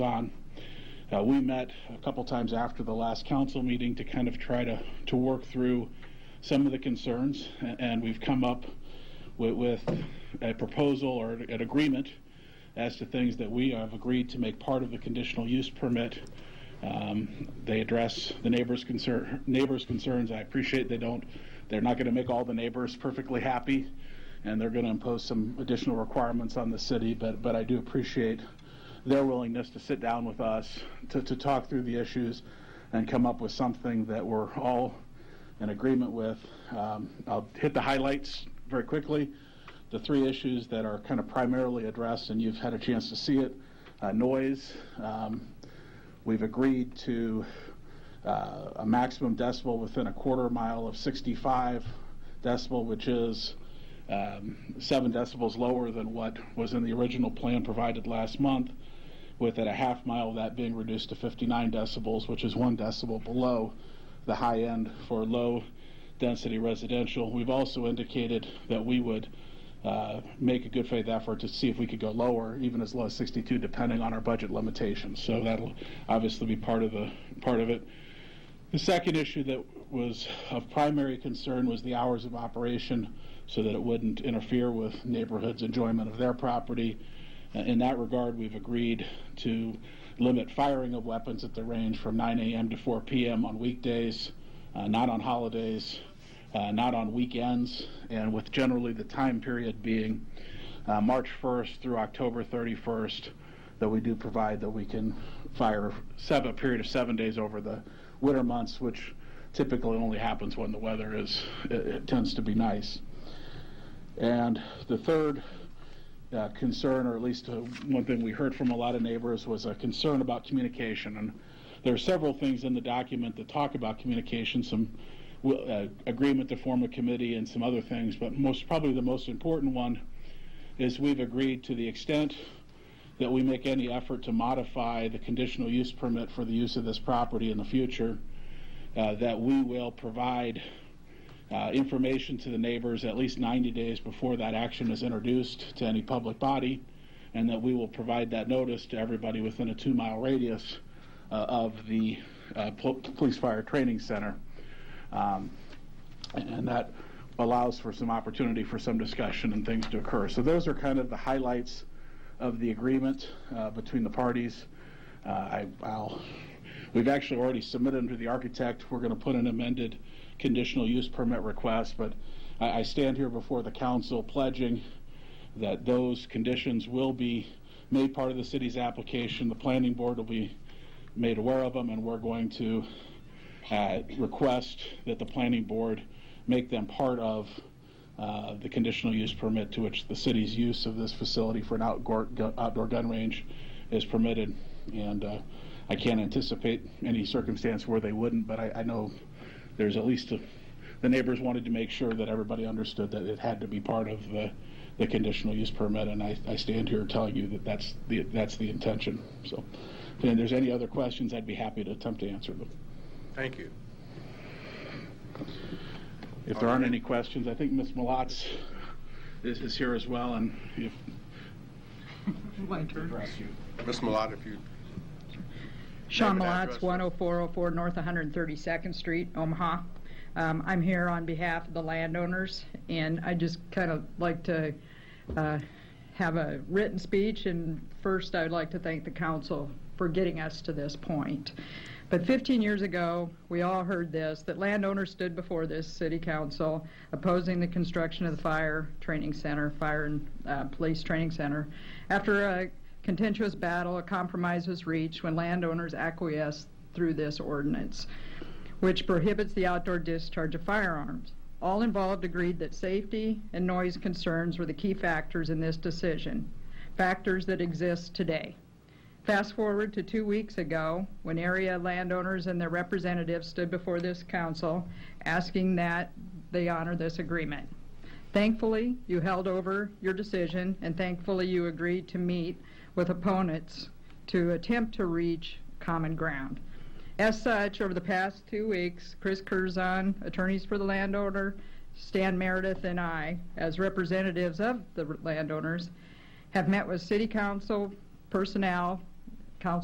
on. Uh, we met a couple times after the last council meeting to kind of try to, to work through some of the concerns, a- and we've come up with, with a proposal or an agreement as to things that we have agreed to make part of the conditional use permit. Um, they address the neighbors' concern, neighbors' concerns. I appreciate they don't, they're not going to make all the neighbors perfectly happy, and they're going to impose some additional requirements on the city. But but I do appreciate their willingness to sit down with us to, to talk through the issues and come up with something that we're all in agreement with. Um, I'll hit the highlights very quickly. The three issues that are kind of primarily addressed, and you've had a chance to see it uh, noise. Um, we've agreed to uh, a maximum decibel within a quarter mile of 65 decibel, which is um, seven decibels lower than what was in the original plan provided last month, with at a half mile of that being reduced to 59 decibels, which is one decibel below the high end for low density residential. We've also indicated that we would uh, make a good faith effort to see if we could go lower, even as low as 62, depending on our budget limitations. So that'll obviously be part of the part of it. The second issue that was of primary concern was the hours of operation so that it wouldn't interfere with neighborhoods' enjoyment of their property. Uh, In that regard, we've agreed to limit firing of weapons at the range from 9 a.m. to 4 p.m. on weekdays, uh, not on holidays, uh, not on weekends, and with generally the time period being uh, March 1st through October 31st, that we do provide that we can fire seven, a period of seven days over the winter months, which typically only happens when the weather is, it, it tends to be nice. And the third uh, concern, or at least uh, one thing we heard from a lot of neighbors, was a concern about communication. And there are several things in the document that talk about communication, some wi- uh, agreement to form a committee and some other things, but most, probably the most important one is we've agreed to the extent that we make any effort to modify the conditional use permit for the use of this property in the future, uh, that we will provide uh, information to the neighbors at least 90 days before that action is introduced to any public body, and that we will provide that notice to everybody within a two-mile radius uh, of the uh, pol- Police Fire Training Center. Um, And that allows for some opportunity for some discussion and things to occur. So those are kind of the highlights of the agreement uh, between the parties. Uh, I, I'll, we've actually already submitted them to the architect. We're going to put an amended conditional use permit request, but I, I stand here before the council pledging that those conditions will be made part of the city's application. The planning board will be made aware of them, and we're going to uh, request that the planning board make them part of uh, the conditional use permit to which the city's use of this facility for an outdoor, gu- outdoor gun range is permitted. And uh, I can't anticipate any circumstance where they wouldn't, but I, I know there's at least, a- the neighbors wanted to make sure that everybody understood that it had to be part of the, the conditional use permit. And I, I stand here telling you that that's the, that's the intention. So, if there's any other questions, I'd be happy to attempt to answer them. Thank you. If there aren't any questions, I think Ms. Malatz is, is here as well, and if. My turn. Ms. Malat, if you, Sean oh Name and Malatz, address. 10404 North 132nd Street, Omaha. Um, I'm here on behalf of the landowners, and I just kind of like to uh, have a written speech, and first, I'd like to thank the council for getting us to this point. But 15 years ago, we all heard this, that landowners stood before this city council opposing the construction of the fire training center, fire and uh, police training center, after uh, a contentious battle, a compromise was reached when landowners acquiesced through this ordinance, which prohibits the outdoor discharge of firearms. All involved agreed that safety and noise concerns were the key factors in this decision, factors that exist today. Fast forward to two weeks ago, when area landowners and their representatives stood before this council asking that they honor this agreement. Thankfully, you held over your decision, and thankfully, you agreed to meet with opponents to attempt to reach common ground. As such, over the past two weeks, Chris Curzon, attorneys for the landowner, Stan Meredith, and I, as representatives of the landowners, have met with city council personnel,